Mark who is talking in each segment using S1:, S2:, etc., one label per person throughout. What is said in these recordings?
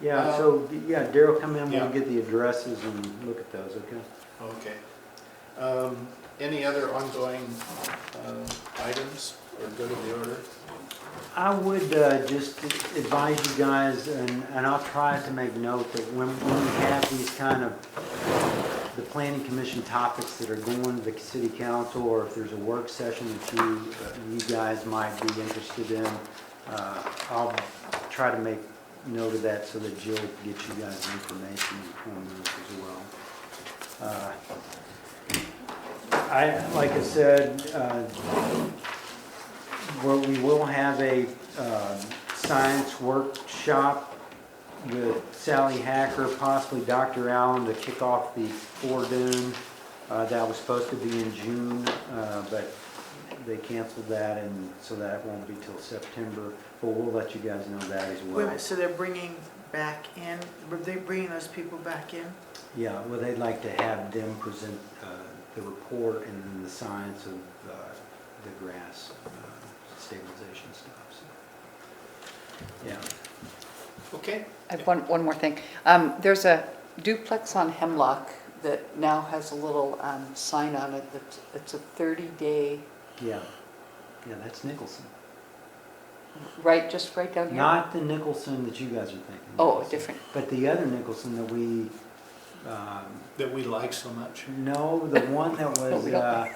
S1: Yeah, so, Uh, yeah, Daryl, come in, we'll
S2: Yeah.
S1: get the addresses and look at those, okay?
S2: Okay. Um, Any other ongoing um, items or go to the order?
S1: I would uh, just advise you guys, and and I'll try to make note that when when we have these kind of, the planning commission topics that are going to the city council, or if there's a work session that you, you guys might be interested in, uh, I'll try to make note of that so that Jill can get you guys the information on those as well. Uh, I, like I said, uh, where we will have a um, science workshop with Sally Hacker, possibly Dr. Allen, to kick off the Foredoon. Uh, That was supposed to be in June, uh, but they canceled that, and so that won't be till September. But we'll let you guys know that as
S3: Wait a
S1: well.
S3: minute, so they're bringing back in, were they bringing those people back in?
S1: Yeah, well, they'd like to have them present uh, the report and then the science of uh, the grass uh, stabilization stuff, so, yeah.
S2: Okay,
S4: I have one, one more thing. Um, There's a duplex on Hemlock that now has a little um, sign on it that's, it's a 30-day,
S1: Yeah, yeah, that's Nicholson.
S4: right, just right down here?
S1: Not the Nicholson that you guys are thinking.
S4: Oh,
S1: Nicholson.
S4: different,
S1: But the other Nicholson that we, um,
S2: that we like so much.
S1: no, the one that was
S4: we don't
S1: uh,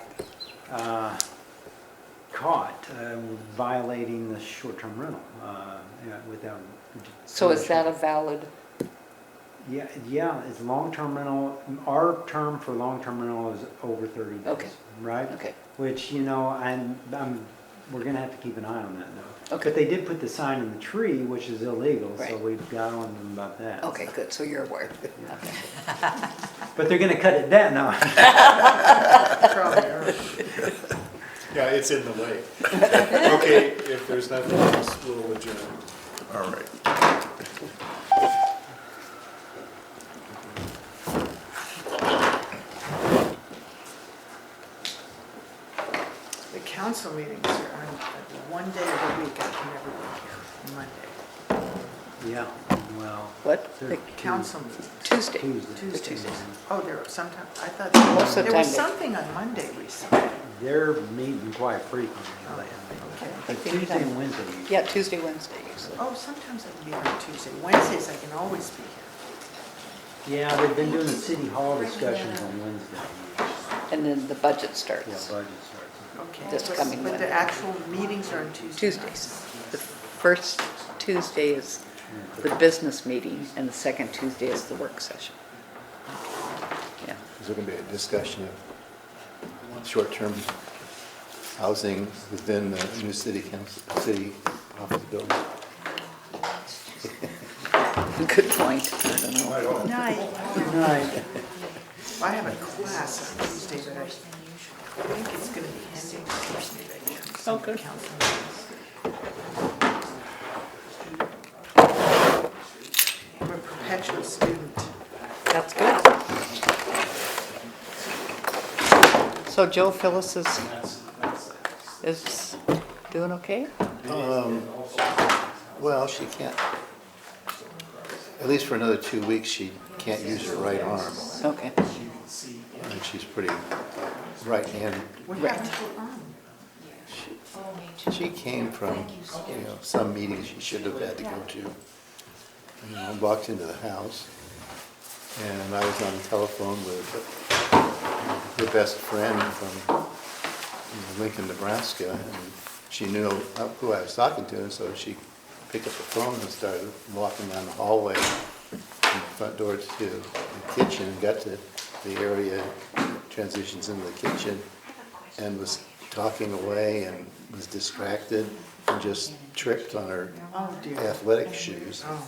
S1: uh, caught uh, violating the short-term rental uh, yeah, without.
S4: so is that a valid,
S1: Yeah, yeah, it's long-term rental, our term for long-term rental is over 30
S4: Okay.
S1: days, right?
S4: okay,
S1: Which, you know, I'm, I'm, we're gonna have to keep an eye on that though.
S4: Okay.
S1: But they did put the sign in the tree, which is illegal, so
S4: Right.
S1: we've got on them about that.
S4: okay, good, so you're aware. Okay.
S1: But they're gonna cut it down now.
S3: Probably, or-
S2: Yeah, it's in the way. Okay, if there's nothing else, we'll adjourn.
S5: All right.
S3: The council meetings are on like, one day of the week, I can never be here, Monday.
S1: Yeah, well.
S4: What?
S1: they're
S4: The
S1: Tues-
S3: Council
S4: Hmm.
S3: meetings,
S4: Tuesday?
S1: Tuesday.
S3: Tuesdays.
S1: Mhm.
S3: Oh, there were sometime, I thought,
S4: Most of
S3: there
S4: the
S3: was
S4: time
S3: something on Monday recently.
S1: They're meeting quite frequently
S3: Oh,
S1: lately.
S4: okay. I
S1: But
S4: think they meet
S1: Tuesday
S4: on-
S1: and Wednesday. usually.
S4: Yeah, Tuesday, Wednesday usually.
S3: Oh, sometimes I can be here on Tuesday, Wednesdays I can always be here.
S1: Yeah, they've been doing the city hall discussions on Wednesday.
S4: And then the budget
S1: Oh. Yeah, budget
S4: starts,
S1: starts.
S3: Okay.
S4: This
S3: but-
S4: coming
S3: But the
S4: Monday.
S3: actual meetings are on Tuesday.
S4: Tuesdays. The first Tuesday is
S1: Yeah.
S4: the business meeting, and the second Tuesday is the work session. Yeah.
S5: Is there going to be a discussion of short-term housing within the new city council, city office building?
S4: Good point. I don't know.
S3: Night.
S1: Good night.
S3: I have a class on Tuesday, but I think it's gonna be ending Thursday, I guess.
S4: Oh, good.
S3: Council meetings. I'm a perpetual student.
S4: That's good. So Joe Phyllis is, is doing okay?
S5: Well, she can't, at least for another two weeks, she can't use her right arm.
S4: Okay.
S5: And she's pretty right-handed.
S3: What happened to her arm?
S5: She came from, you know, some meeting she should have had to go to. And I walked into the house, and I was on the telephone with her best friend from you know, Lincoln, Nebraska, and she knew who I was talking to, and so she picked up the phone and started walking down the hallway from the front door to the kitchen, and got to the area, transitions into the kitchen, and was talking away and was distracted and just tripped on her
S3: Oh, dear.
S5: athletic shoes
S3: Oh.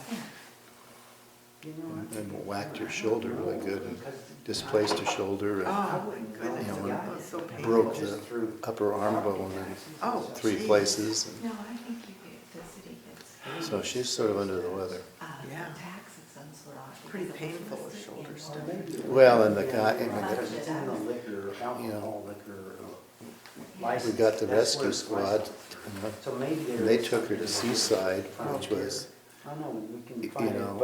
S5: and- and whacked her shoulder really good and displaced her shoulder and
S3: Oh, my goodness,
S5: Yeah, when
S3: that was so painful.
S5: broke the upper arm bone in
S3: Oh,
S5: three
S3: gee.
S5: places.
S6: No, I think you do, the city gets,
S5: So she's sort of under the weather.
S6: uh,
S3: Yeah.
S6: tax exempts a lot.
S3: Pretty painful, the shoulder stuff.
S5: Well, and the guy, and the-
S1: It's in the liquor, alcohol liquor license.
S5: we got the
S1: That's where
S5: rescue
S1: it's
S5: squad,
S1: licensed.
S5: you know,
S1: So maybe
S5: and they took her to Seaside, which was
S1: I don't know, we can
S5: you
S1: find it,
S5: know,